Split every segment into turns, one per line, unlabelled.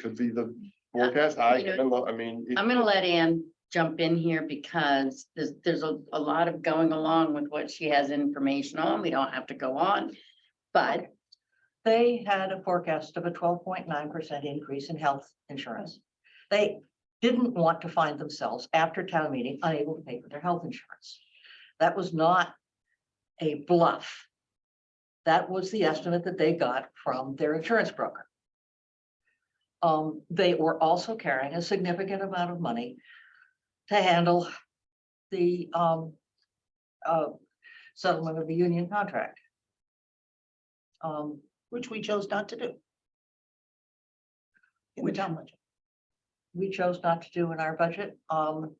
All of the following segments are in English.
could be the forecast. I, I love, I mean. it-
I'm gonna let Ann jump in here because there's, there's a, a lot of going along with what she has information on. We don't have to go on. But
They had a forecast of a twelve point nine percent increase in health insurance. They didn't want to find themselves after town meeting unable to pay for their health insurance. That was not a bluff. That was the estimate that they got from their insurance broker. Um, they were also carrying a significant amount of money to handle the um uh settlement of the union contract. Um,
which we chose not to do. In the
Which-
town budget.
we chose not to do in our budget, um.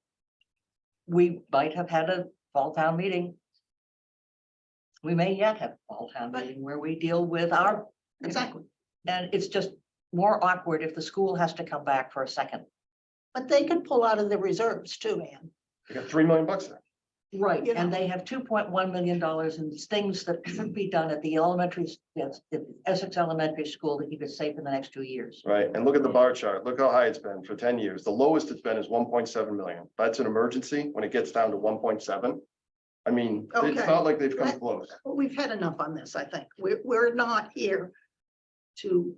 We might have had a fall town meeting. We may yet have a fall town
But-
meeting where we deal with our,
Exactly.
and it's just more awkward if the school has to come back for a second.
But they could pull out of the reserves too, Ann.
I got three million bucks there.
Right.
You
And
know.
they have two point one million dollars in things that should be done at the elementary, s- yes, the Essex Elementary School that you could save in the next two years.
Right, and look at the bar chart, look how high it's been for ten years, the lowest it's been is one point seven million, that's an emergency, when it gets down to one point seven. I mean, it's
Okay.
not like they've come
Let-
close,
But we've had enough on this, I think. We're, we're not here to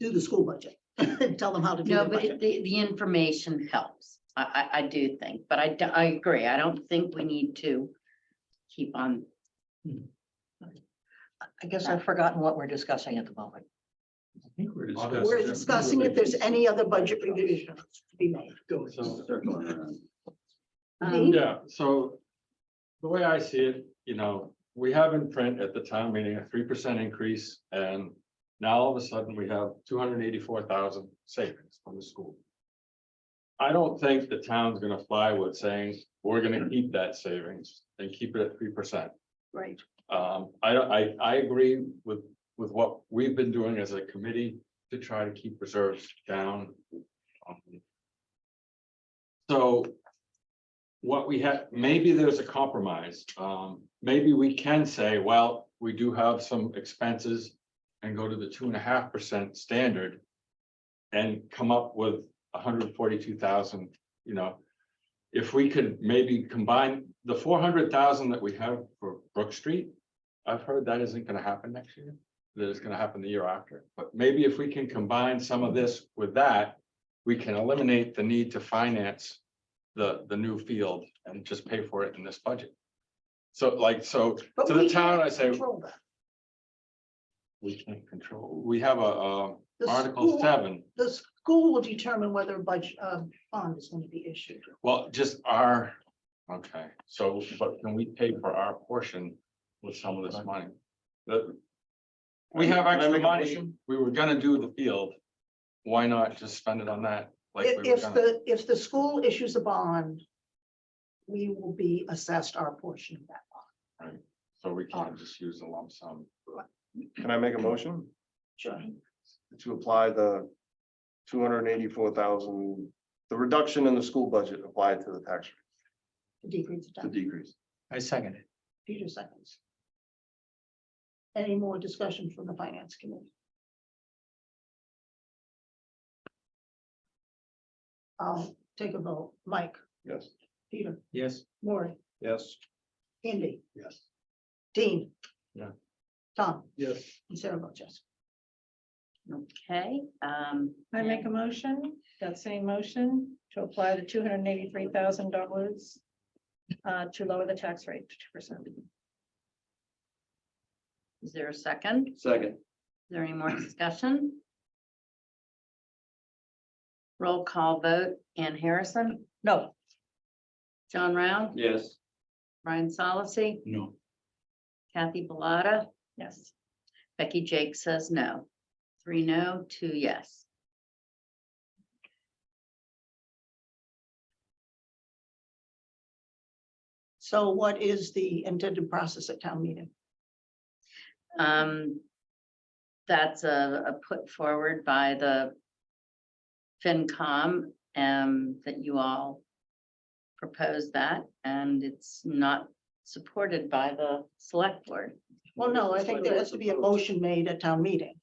do the school budget and tell them how to do
no,
the
but it-
budget.
the, the information helps. I, I, I do think, but I, d- I agree. I don't think we need to keep on.
I guess I've forgotten what we're discussing at the moment.
think we're discussing.
We're discussing if there's any other budget revisions to be made.
So-
um,
Yeah, so the way I see it, you know, we have in print at the town meeting a three percent increase and now all of a sudden we have two hundred eighty-four thousand savings from the school. I don't think the town's gonna fly with saying, we're gonna keep that savings and keep it at three percent.
Right.
Um, I don't, I, I agree with, with what we've been doing as a committee to try to keep reserves down. Um, So. What we have, maybe there's a compromise, um, maybe we can say, well, we do have some expenses. And go to the two and a half percent standard. And come up with hundred forty-two thousand, you know. If we could maybe combine the four hundred thousand that we have for Brook Street. I've heard that isn't gonna happen next year, that it's gonna happen the year after, but maybe if we can combine some of this with that. We can eliminate the need to finance the, the new field and just pay for it in this budget. So like, so
But
to the
we
town, I
can't
say,
control that.
we can't control, we have a, uh,
The
Article
school-
seven,
The school will determine whether a budget, uh, bond is going to be issued.
well, just our, okay, so, but can we pay for our portion with some of this money? The- We have
Can I
extra
make a
money,
motion?
we were gonna do the field, why not just spend it on that? Like
If,
we were
if
gonna,
the, if the school issues a bond, we will be assessed our portion of that bond.
so we can't just use a lump sum.
can I make a motion
Sure.
to apply the two hundred and eighty-four thousand, the reduction in the school budget applied to the tax, rate,
To decrease the
the
tax.
decrease?
I second it.
Peter seconds. Any more discussion from the finance committee? I'll take a vote. Mike,
Yes.
Peter,
Yes.
Maury,
Yes.
Andy,
Yes.
Dean.
Yeah.
Tom
Yes.
and Sarah votes yes.
Okay, um.
I make a motion, that same motion, to apply the two hundred and eighty-three thousand dollars
uh,
to lower the tax rate to two percent.
Is there a second? Is
Second.
there any more discussion? Roll call vote. Ann Harrison,
No,
John Round,
Yes.
Brian Solacey,
No.
Kathy Bellata.
Yes,
Becky Jake says no. Three no, two yes.
So what is the intended process at town meeting?
Um, that's a, a put forward by the FinCom, um, that you all proposed that, and it's not supported by the select board.
Well, no, I think there has to be a motion made at town meeting.